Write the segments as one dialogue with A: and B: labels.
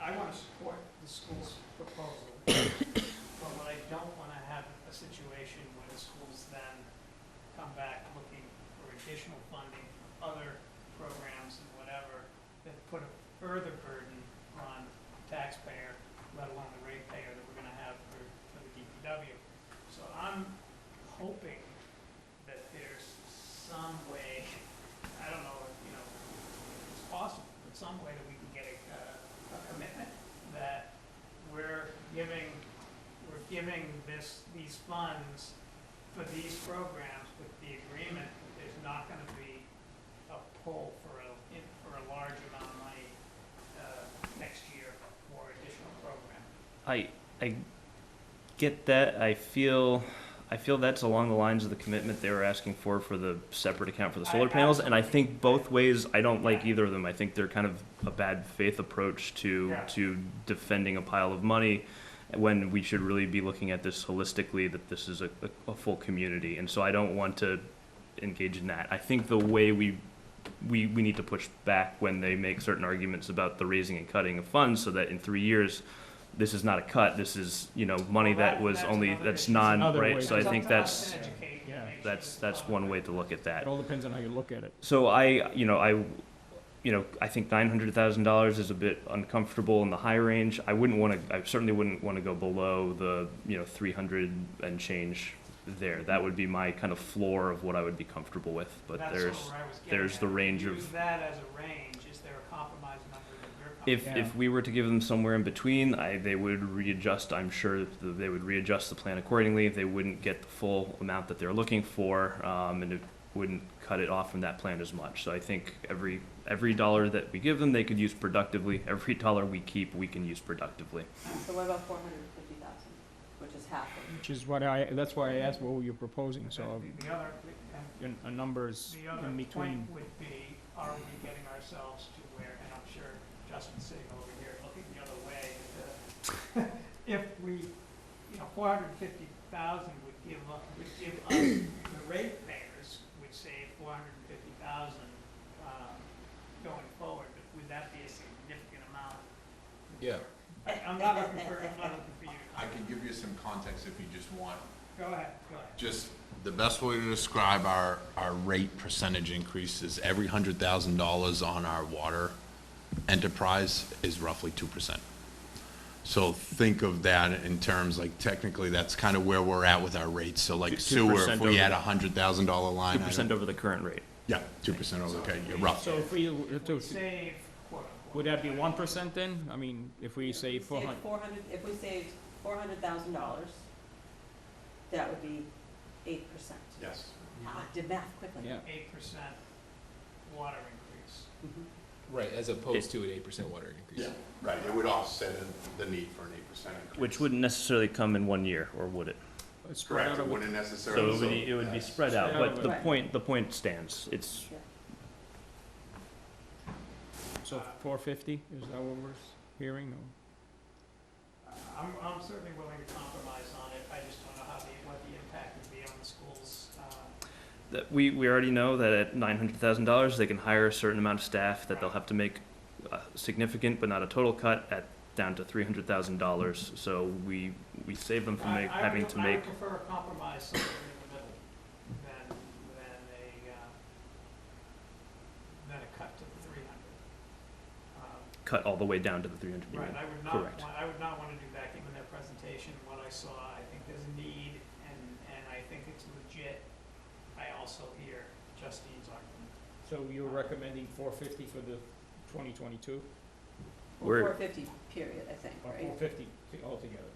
A: I want to support the school's proposal, but what I don't want to have a situation where the schools then come back looking for additional funding for other programs and whatever that put a further burden on taxpayer, let alone the ratepayer that we're going to have for, for the DPW. So I'm hoping that there's some way, I don't know, if you know, if it's possible, but some way that we can get a, uh, a commitment that we're giving, we're giving this, these funds for these programs with the agreement that there's not gonna be a pull for a, in- for a large amount of money, uh, next year for additional program.
B: I I get that. I feel I feel that's along the lines of the commitment they were asking for for the separate account for the
A: I-
B: solar panels, and I think both ways I don't like either of them. I think they're kind of a bad faith approach to
A: Yeah.
B: to defending a pile of money when we should really be looking at this holistically that this is a, a, a full community and so I don't want to engage in that. I think the way we we, we need to push back when they make certain arguments about the raising and cutting of funds so that in three years this is not a cut this is you know money
A: Well, that-
B: that was
A: that's
B: only
A: another
B: that's
A: issue.
B: non
C: Another
B: right
C: way
B: so i
C: to-
A: It's
B: think
A: up to us
B: that's
A: to educate and
C: Yeah.
A: make sure
B: that's
A: that
B: that's
A: the
B: one
A: public-
B: way to look at that
C: It all depends on how you look at it.
B: so I, you know, I, you know, I think nine hundred thousand dollars is a bit uncomfortable in the high range. I wouldn't want to. I certainly wouldn't want to go below the, you know, three hundred and change there. That would be my kind of floor of what I would be comfortable with. But
A: That's
B: there's,
A: where I was getting
B: there's
A: at.
B: the range
A: Use
B: of-
A: that as a range, is there a compromise number that you're comfortable
B: if
C: Yeah.
B: if we were to give them somewhere in between, I they would readjust. I'm sure th- they would readjust the plan accordingly. They wouldn't get the full amount that they're looking for, um, and it wouldn't cut it off from that plan as much. So I think every every dollar that we give them, they could use productively. Every dollar we keep, we can use productively.
D: So what about four hundred and fifty thousand, which is half of?
C: Which is what I, that's why I asked what were you proposing, so
A: The- The other, and
C: a, a number is
A: The other point
C: in between.
A: would be, are we getting ourselves to where, and I'm sure Justin's sitting over here looking the other way, uh, if we, you know, four hundred and fifty thousand would give, up- would give us, the ratepayers would save four hundred and fifty thousand um, going forward, but would that be a significant amount?
E: Yeah.
A: I- I'm not looking for, I'm not looking for you to
E: I can
A: comment.
E: give you some context if you just want.
A: Go ahead, go ahead.
E: Just. The best way to describe our, our rate percentage increase is every hundred thousand dollars on our water enterprise is roughly two percent. So think of that in terms, like technically, that's kind of where we're at with our rates. So like sewer, if
B: 2%
E: we had a
B: over-
E: hundred thousand dollar line.
B: Two
E: item-
B: percent over the current rate.
E: Yeah, two percent over, okay, you're rough.
C: So if we, were
A: Would
C: to-
A: save, quote unquote.
C: would that be one percent then? I mean, if we say four hundred,
D: Four hundred, if we saved four hundred thousand dollars, that would be eight percent. Ah,
E: Yes.
D: I did math quickly.
C: yeah.
A: Eight percent water increase.
D: Mhm.
F: Right, as opposed to an eight percent water increase.
E: Yeah, right, it would offset the need for an eight percent increase.
B: Which wouldn't necessarily come in one year, or would it?
C: it's spread
E: Correct,
C: out
E: it
C: over-
E: wouldn't
B: So
E: necessarily.
B: it would, be- it would be spread out,
C: Spread out
B: but the
D: over-
B: point, the point stands. It's
C: So four fifty, is that what we're s- hearing? or-
A: I'm, I'm certainly willing to compromise on it, I just don't know how the, what the impact would be on the schools. uh,
B: that we, we already know that at nine hundred thousand dollars, they can hire a certain amount of staff that they'll have to make a significant but not a total cut at down to three hundred thousand dollars. So we we save them from
A: I-
B: make,
A: I
B: having
A: would-
B: to make.
A: I would prefer a compromise somewhere in the middle than, than a, uh, than a cut to the three hundred. Um,
B: cut all the way down to the 300
A: Right,
B: million.
A: I would not,
B: Correct.
A: wa- I would not want to do that, given their presentation, what I saw, I think there's a need, and, and I think it's legit. I also hear Justine's argument.
C: So you're recommending four fifty for the twenty twenty-two,
D: Or
B: We're-
D: four fifty, period, I think,
C: or
D: right?
C: four fifty altogether?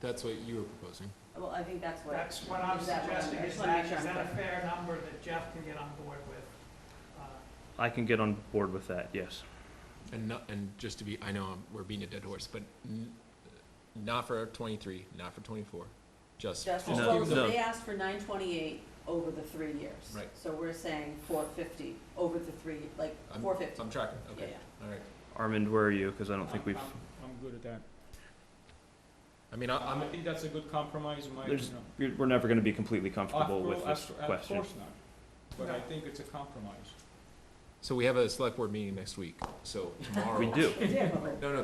F: That's what you were proposing.
D: Well, I think that's what.
A: That's what I'm
D: is that what I'm-
A: suggesting,
D: I
A: is
D: just wanna make
A: that,
D: sure
A: is
D: I'm
A: that a
D: clear.
A: fair number that Jeff can get on board with? Uh,
B: I can get on board with that, yes.
F: And not, and just to be, I know I'm- we're beating a dead horse, but n- not for twenty-three, not for twenty-four, just.
D: Just,
B: No,
D: well,
B: no.
D: so they asked for nine twenty-eight over the three years.
F: Right.
D: So we're saying four fifty over the three, like,
F: I'm-
D: four fifty,
F: I'm tracking,
D: yeah,
F: okay,
D: yeah.
F: all right.
B: Armand, where are you? Because I don't think
C: I'm-
B: we've,
C: I'm I'm good at that.
F: I mean, I- I'm,
C: I think that's a good compromise, in my, you
B: There's
C: know.
B: we're we're never going to be completely comfortable
C: Of
B: with
C: course-
B: this
C: of- of
B: question.
C: course not. But I
A: No.
C: think it's a compromise.
F: so we have a select board meeting next week, so tomorrow.
B: We do.
D: Yeah, but-
F: No, no,